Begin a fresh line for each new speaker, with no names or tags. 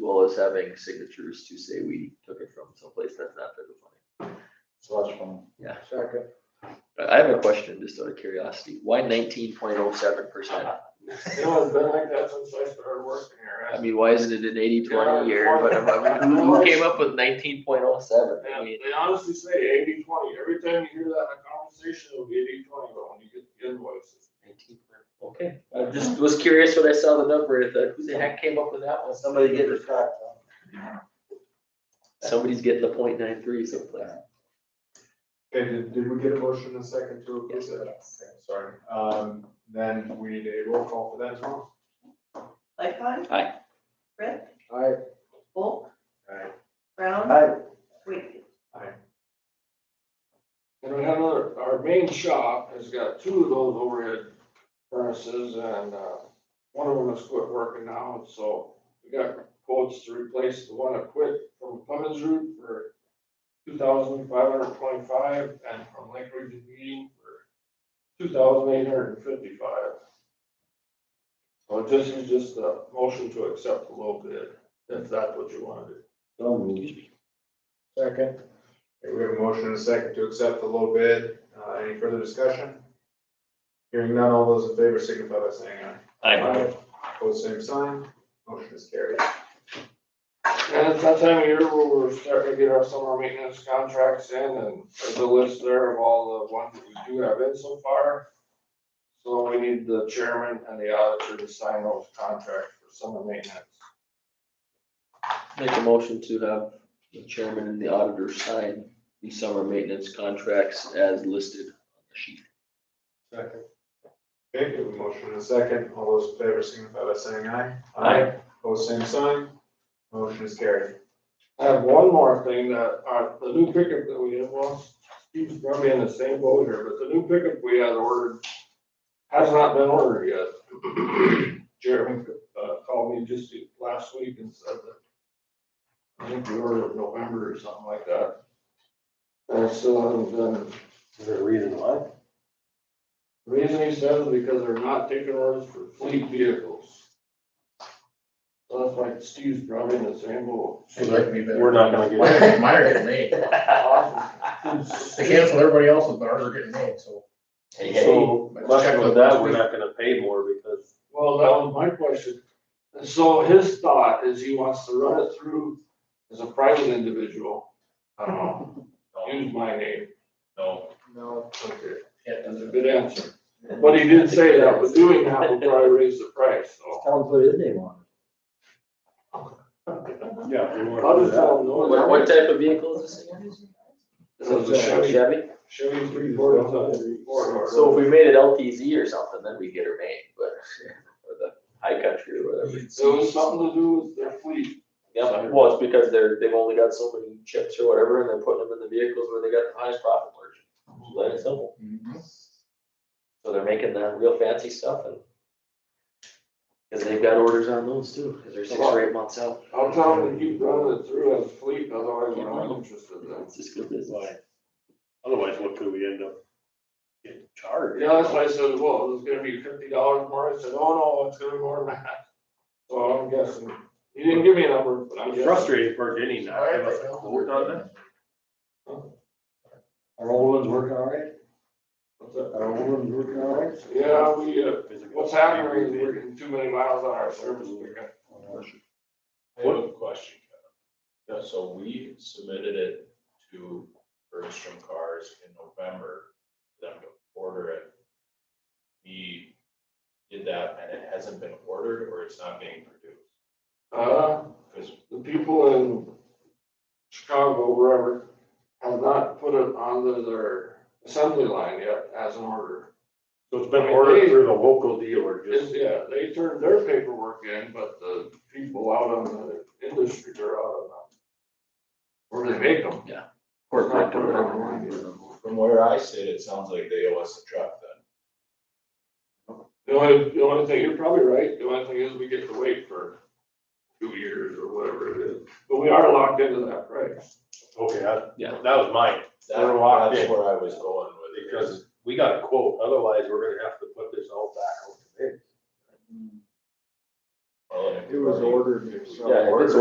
well as having signatures to say we took it from someplace that's not federal funding.
So that's fine.
Yeah.
Second.
I I have a question, just out of curiosity, why nineteen point oh seven percent?
It has been like that since I started working here.
I mean, why isn't it an eighty twenty year, but I'm- I mean, who, who came up with nineteen point oh seven? I
And
mean,
they honestly say 80-20. every time you hear that in a conversation, it'll be 80-20. but when you get the invoices.
19. Okay, I just was curious when I saw the number, I thought, who the heck came up with that one?
Somebody get the crack.
Somebody's getting the point nine three someplace.
Okay, did, did we get a motion and a second to approve
Yes.
that? Okay, Sorry, um, then we need a roll call for that as well.
Lightcon.
Aye.
Brett,
Aye.
Volk,
Alright.
Brown,
Aye.
Wakefield.
And we have another, our main shop has got two of those overhead furnaces and, uh, one of them has quit working now, and so we got quotes to replace the one that quit from Clemens Route for two thousand five hundred twenty-five and from Lake Region Heating for two thousand eight hundred and fifty-five. So this is just a motion to accept the low bid, if that's what you want to do.
So moved. Second.
Okay, we have a motion and a second to accept the low bid, uh, any further discussion? Hearing none, all those in favor signify by saying aye. Pose same sign, motion is carried.
And it's that time of year where we're starting to get our summer maintenance contracts in and there's a list there of all the ones that we do have in so far. So we need the chairman and the auditor to sign those contracts for summer maintenance.
Make a motion to have the chairman and the auditor sign the summer maintenance contracts as listed on the sheet.
Second. Okay, we have a motion and a second, all those in favor signify by saying aye.
Aye.
Pose same sign, motion is carried.
I have one more thing that, uh, the new pickup that we have, well, Steve's probably in the same boat here, but the new pickup we had ordered has not been ordered yet. Jeremy, uh, called me just last week and said that I think we ordered in November or something like that. And so, um, the
Is there a reason why?
reason he says is because they're not taking orders for fleet vehicles. So that's why Steve's probably in the same boat.
We're not gonna get it. Mine are getting made. They cancel everybody else's, but ours are getting made, so.
So,
But check
question
with
with
that,
that,
we're
we're
not gonna pay more because.
Well, that was my question. And So his thought is he wants to run it through as a private individual. I don't know, use my name.
No.
No.
Okay.
Can't
That's a
do
good answer. But he did say that, but doing that will probably raise the price, so.
Tell him put his name on
Yeah.
I'll just tell him no.
What, what type of vehicle is this again?
This is a Chevy,
Chevy?
Chevy three quarter ton, four door.
So if we made it LTZ or something, then we get her made, but, or the high country or whatever.
So it was something to do with their fleet.
Yeah, well, it's because they're, they've only got so many chips or whatever, and they're putting them in the vehicles where they got the highest profit margin. Plain and simple. So they're making that real fancy stuff and. Cause they've got orders on those too, cause they're six or eight months out.
I'll tell him to keep running it through as fleet, otherwise I'm not interested in it.
It's just good business.
Why? Otherwise, what could we end up getting charged?
Yeah, that's why I said, well, it's gonna be fifty dollars more, I said, oh, no, it's gonna be more than that. So I'm guessing, he didn't give me a number, but I'm
I'm
guessing.
frustrated for getting that. I was like, "Oh, we're done now."
it. Our old one's working all right?
What's that?
Our old one's working all right?
Yeah, we, uh, what's happening is we're getting too many miles on our service, we got,
I have a question, Kevin. So we submitted it to Bergstrom Cars in November, for them to order it. We did that and it hasn't been ordered or it's not being produced.
uh,
Because
the people in Chicago, wherever, have not put it onto their assembly line yet as an order.
So it's been ordered through the local dealer,
It's,
just,
yeah, they turned their paperwork in, but the people out on the industry, they're out on the, where they make them.
Corporate or whatever.
from where I sit, it sounds like they owe us a truck then.
The only, the only thing, you're probably right, the only thing is we get to wait for two years or whatever it is, but we are locked into that price.
okay, I-
Yeah.
that was mine,
That-
We're locked
That's
in.
where I was going with it.
because we got a quote, otherwise we're gonna have to put this all back on the bid.
Well, and if
It was
we-
ordered,
if we
so-
Yeah, if it's